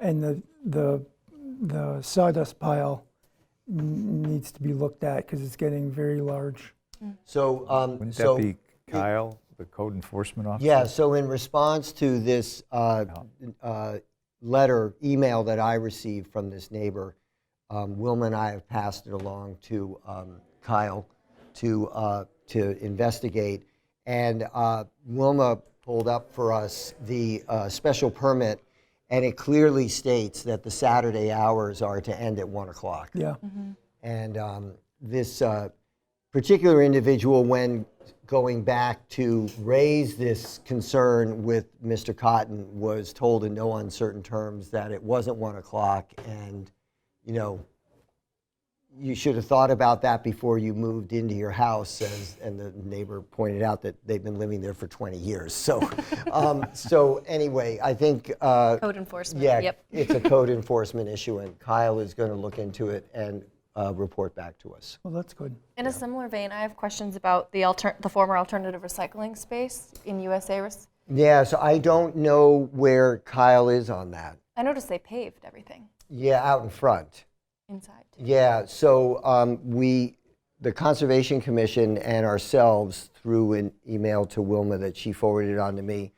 And the, the, the sawdust pile n- needs to be looked at because it's getting very large. So, um, Wouldn't so. that be Kyle, the code enforcement officer? Yeah, so in response to this uh, uh, letter, email that I received from this neighbor, um, Wilma and I have passed it along to um, Kyle to, uh, to investigate. And uh, Wilma pulled up for us the uh, special permit, and it clearly states that the Saturday hours are to end at 1 o'clock. Yeah. And um, this uh, particular individual, when going back to raise this concern with Mr. Cotton, was told in no uncertain terms that it wasn't one o'clock and, you know, you should have thought about that before you moved into your house, as, and the neighbor pointed out that they've been living there for 20 years. So, um, so anyway, I think uh, Code enforcement, yeah, yep. it's a code enforcement issue, and Kyle is going to look into it and uh, report back to us. Well, that's good. In a similar vein, I have questions about the alter, the former alternative recycling space in USA. Rec- Yeah, so I don't know where Kyle is on that. I noticed they paved everything Yeah, out in front. inside. too. Yeah, so um, we, the Conservation Commission and ourselves, through an email to Wilma that she forwarded on to me,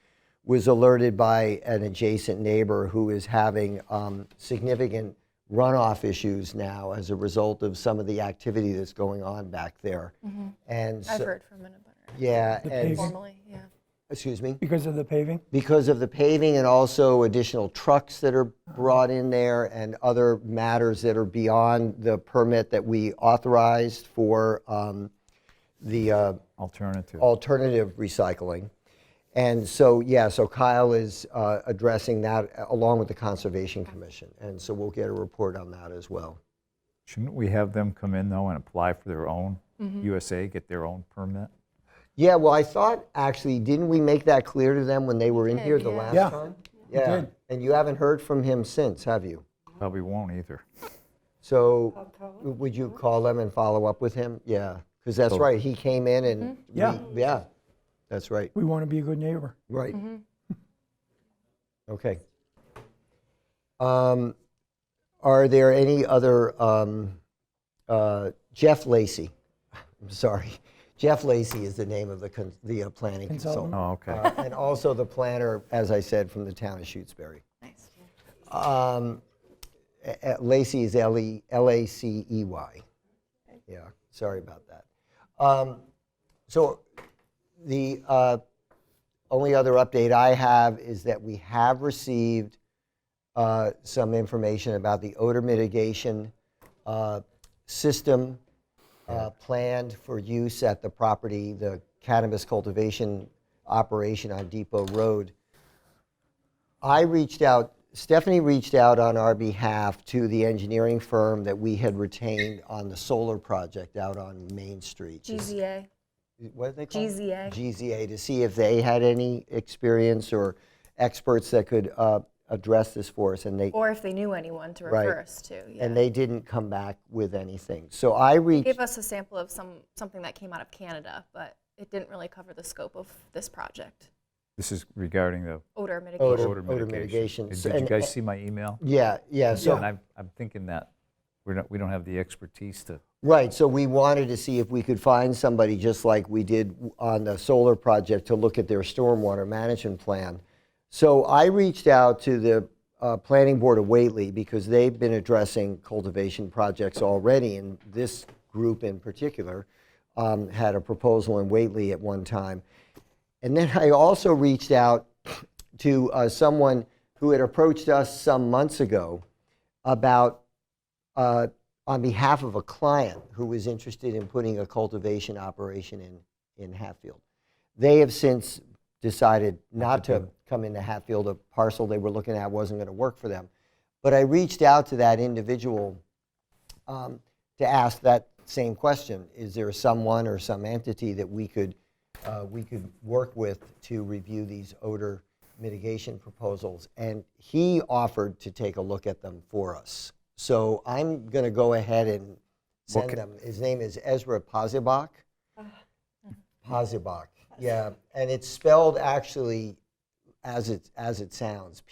was alerted by an adjacent neighbor who is having um, significant runoff issues now as a result of some of the activity that's going on back there. And Mm-hmm. I've so- heard from an abutter yeah, The and paving. formally, yeah. excuse me Because of the paving? because of the paving and also additional trucks that are brought in there and other matters that are beyond the permit that we authorized for um, the uh, Alternative. alternative recycling. And so, yeah, so Kyle is uh, addressing that along with the Conservation Commission. And so we'll get a report on that as well. Shouldn't we have them come in though and apply for their own USA, get their own permit? Yeah, well, I thought, actually, didn't we make that clear to them when they were in did, here the yeah. last Yeah. time? Yeah, did. and you haven't heard from him since, have you? Probably won't either. So would you call them and follow up with him? Yeah, because that's So- right, he came in and, we- Yeah. yeah, that's right, We want to be a good neighbor. right. Okay. Um, Are there any other, um, uh, Jeff Lacy, I'm sorry, Jeff Lacy is the name of the, con- the uh, planning Consultant. consultant. Oh, okay. Uh, And also the planner, as I said, from the town of Shutesbury. Nice. Um, a- a- Lacey is L E L A C E Y. Yeah, sorry about that. Um, So the uh, only other update I have is that we have received uh, some information about the odor mitigation uh, system uh, planned for use at the property, the cannabis cultivation operation on Depot Road. I reached out, Stephanie reached out on our behalf to the engineering firm that we had retained on the solar project out on Main Street. GZA. What are they called? GZA. GZA, to see if they had any experience or experts that could uh, address this for us, and they, Or if they knew anyone to Right. refer us to. Yeah. and they didn't come back with anything. So I reached, gave us a sample of some something that came out of Canada, but it didn't really cover the scope of this project. This is regarding the Odor mitigation. Odor- odor mitigation. mitigation. Did So- did you and- guys see my email? yeah, yeah, And so, I'm, I'm thinking that we're not, we don't have the expertise to, right, so we wanted to see if we could find somebody, just like we did on the solar project, to look at their stormwater management plan. So I reached out to the uh, Planning Board of Whately, because they've been addressing cultivation projects already, and this group in particular um, had a proposal in Whately at one time. And then I also reached out to uh, someone who had approached us some months ago about, uh, on behalf of a client who was interested in putting a cultivation operation in, in Hatfield. They have since decided not to come into Hatfield. A parcel they were looking at wasn't going to work for them. But I reached out to that individual um, to ask that same question. Is there someone or some entity that we could, uh, we could work with to review these odor mitigation proposals? And he offered to take a look at them for us. So I'm going to go ahead and send ca- them. His name is Ezra Pozibak. Pozibak, yeah. And it's spelled actually as it, as it sounds,